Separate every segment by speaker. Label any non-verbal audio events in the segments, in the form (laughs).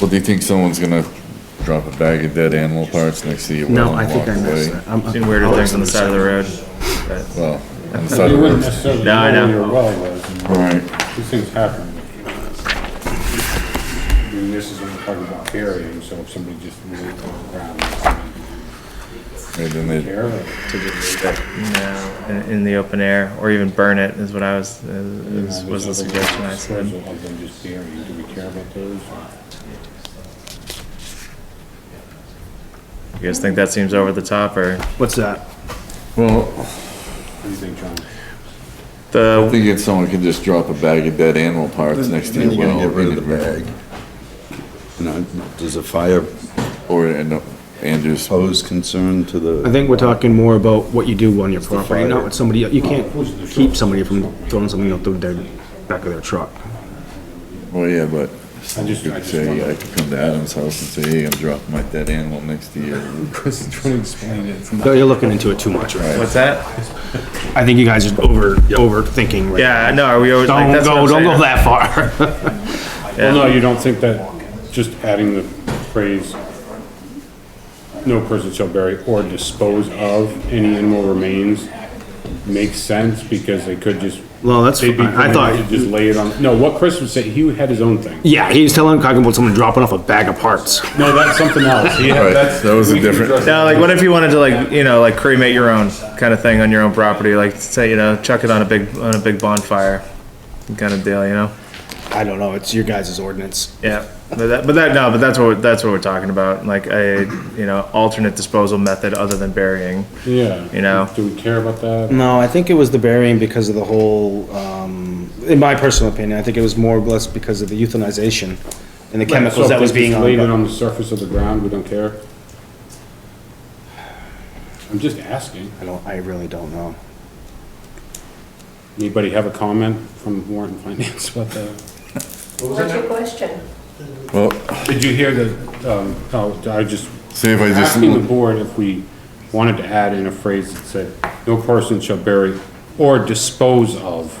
Speaker 1: Well, do you think someone's gonna drop a bag of dead animal parts next to you?
Speaker 2: No,
Speaker 1: while
Speaker 2: I
Speaker 1: you
Speaker 2: think I
Speaker 1: walk
Speaker 2: missed
Speaker 1: away?
Speaker 2: that. I'm-
Speaker 3: Seen weirder
Speaker 2: I'll
Speaker 3: things on the
Speaker 2: listen
Speaker 3: side of the
Speaker 2: to
Speaker 3: road. but-
Speaker 1: Well, on the side
Speaker 4: You
Speaker 1: of the
Speaker 4: wouldn't
Speaker 1: road.
Speaker 4: necessarily
Speaker 3: No, I
Speaker 4: know where
Speaker 3: know.
Speaker 4: your well was, and
Speaker 1: All right,
Speaker 4: these things happen. I mean, this is what we're talking about burying, so if somebody just really goes around,
Speaker 1: and then they,
Speaker 4: care of it.
Speaker 3: No, in, in the open air, or even burn it is what I was, is, is- was the
Speaker 4: There's other
Speaker 3: suggestion I
Speaker 4: ways
Speaker 3: said.
Speaker 4: disposal Of them just burying, do we care about those?
Speaker 3: You guys think that seems over the top or?
Speaker 2: What's that?
Speaker 1: well,
Speaker 4: What do you think, John?
Speaker 1: I
Speaker 3: The,
Speaker 1: think if someone could just drop a bag of dead animal parts next to
Speaker 5: Then
Speaker 1: you,
Speaker 5: you're gonna
Speaker 1: well,
Speaker 5: get rid of
Speaker 1: in
Speaker 5: the
Speaker 1: the
Speaker 5: bag. You know, does a fire
Speaker 1: or, and, and just,
Speaker 5: pose concern to
Speaker 2: I
Speaker 5: the,
Speaker 2: think we're talking more about what you do on your property,
Speaker 5: fire.
Speaker 2: not what somebody, you can't keep somebody from throwing something out through their, back of their truck.
Speaker 1: well, yeah, but
Speaker 4: I
Speaker 1: you
Speaker 4: just, I
Speaker 1: could
Speaker 4: just wonder.
Speaker 1: say, I could come to Adam's house and say, hey, I'm dropping my dead animal next to you.
Speaker 6: Chris is trying to explain it. It's not-
Speaker 2: No, you're looking into it too much, right?
Speaker 3: what's that?
Speaker 2: I think you guys are over, overthinking right
Speaker 3: Yeah, no, are we always like,
Speaker 2: Don't
Speaker 3: that's what
Speaker 2: go,
Speaker 3: I'm
Speaker 2: don't go
Speaker 3: saying.
Speaker 2: that far. (laughs)
Speaker 4: Well, no, you don't think that just adding the phrase, no person shall bury or dispose of any animal remains makes sense because they could just.
Speaker 2: Well, that's
Speaker 4: they'd be
Speaker 2: fine. I thought-
Speaker 4: permitted to Just lay it on, no, what Chris was saying, he had his own thing.
Speaker 2: Yeah, he was telling, talking about someone dropping off a bag of parts.
Speaker 4: No, that's something else. He
Speaker 1: Right,
Speaker 4: had, that's.
Speaker 1: that was a
Speaker 4: we can
Speaker 1: different-
Speaker 4: address
Speaker 3: No, like what if you wanted to like, you know, like cremate your own kind of thing on your own property, like say, you know, chuck it on a big, on a big bonfire kind of deal, you know?
Speaker 2: I don't know, it's your guys' ordinance.
Speaker 3: Yeah, but that, but that, no, but that's what, we're- that's what we're talking about, like a, you know, alternate disposal method other than burying.
Speaker 4: Yeah.
Speaker 3: You know.
Speaker 4: Do we care about that?
Speaker 2: No, I think it was the burying because of the whole, um, in my personal opinion, I think it was more or less because of the euthanization and the
Speaker 4: So
Speaker 2: chemicals
Speaker 4: if
Speaker 2: that was
Speaker 4: they just
Speaker 2: being
Speaker 4: Laid it
Speaker 2: on.
Speaker 4: on the surface of the ground, we don't care? I'm just asking.
Speaker 2: I don't, I really don't know.
Speaker 4: Anybody have a comment from warrant and finance about that?
Speaker 7: What's your question?
Speaker 1: Well,
Speaker 4: Did you hear the, um, oh, I just,
Speaker 1: say if I just,
Speaker 4: asking the board if we wanted to add in a phrase that said, no person shall bury or dispose of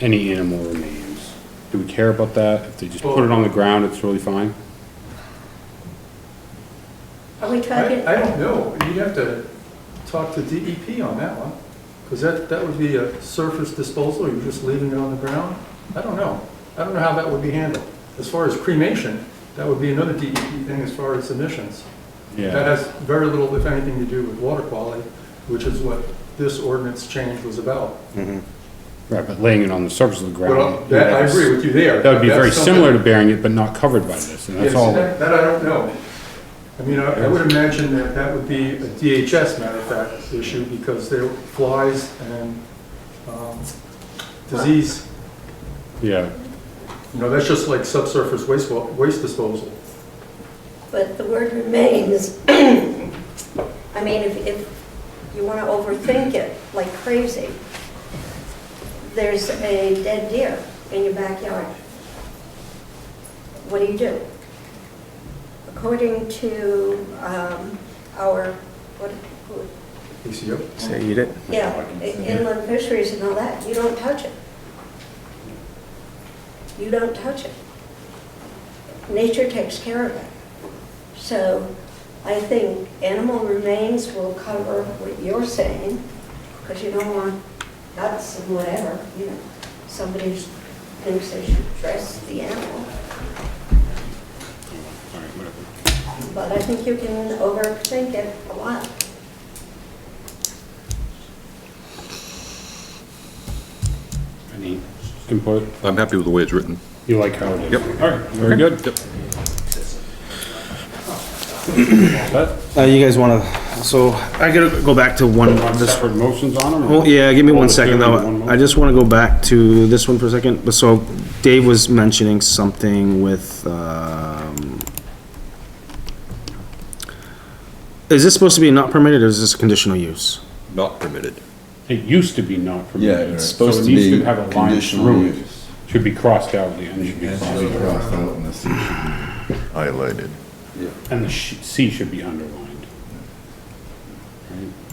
Speaker 4: any animal remains. Do we care about that? If they just put it on the ground, it's really fine?
Speaker 7: Are we talking,
Speaker 6: I, I don't know, you'd have to talk to DEP on that one, because that, that would be a surface disposal, you're just leaving it on the ground? I don't know, I don't know how that would be handled. As far as cremation, that would be another DEP thing as far as emissions. That has very little, if anything, to do with water quality, which is what this ordinance change was about.
Speaker 4: Right, but laying it on the surface of the
Speaker 6: Well,
Speaker 4: ground.
Speaker 6: that, I agree with you there.
Speaker 4: That would be very
Speaker 6: That's something-
Speaker 4: similar to burying it, but not covered by this, and
Speaker 6: Yes,
Speaker 4: that's all.
Speaker 6: that, that I don't know. I mean, I, I would imagine that that would be a DHS matter of fact issue because there are flies and, um, disease,
Speaker 4: Yeah,
Speaker 6: you know, that's just like subsurface waste, wa- waste disposal.
Speaker 7: but the word remains, I mean, if, if you want to overthink it like crazy, there's a dead deer in your backyard. What do you do? According to um, our, what, who-
Speaker 6: PCO.
Speaker 3: Say eat it.
Speaker 7: Yeah, i- inland fisheries and all that, you don't touch it. You don't touch it. Nature takes care of it. So I think animal remains will cover what you're saying, because you don't want nuts and whatever, you know. Somebody thinks they should dress the animal. But I think you can overthink it a lot.
Speaker 4: any input?
Speaker 8: I'm happy with the way it's written.
Speaker 4: You like how it is? Yep. All right, very good. That,
Speaker 2: Uh, you guys wanna, so I gotta go back to one,
Speaker 4: want
Speaker 2: this,
Speaker 4: separate motions on them? or-
Speaker 2: well, yeah, give me
Speaker 4: Hold
Speaker 2: one
Speaker 4: the
Speaker 2: second
Speaker 4: two in
Speaker 2: though.
Speaker 4: one
Speaker 2: I just wanna go back to this one for a second. But so Dave was mentioning something with, um, is this supposed to be not permitted or is this a conditional use?
Speaker 8: Not permitted.
Speaker 4: motion? It used to be not
Speaker 5: yeah,
Speaker 4: permitted.
Speaker 5: it's
Speaker 4: so
Speaker 5: supposed
Speaker 4: it
Speaker 5: to
Speaker 4: needs
Speaker 5: be
Speaker 4: have a line
Speaker 5: conditional
Speaker 4: through it.
Speaker 5: use.
Speaker 4: Should be crossed out, the end should be crossed
Speaker 1: should be
Speaker 4: out.
Speaker 1: crossed out and the C should be highlighted.
Speaker 4: And the sh- C should be underlined. Right?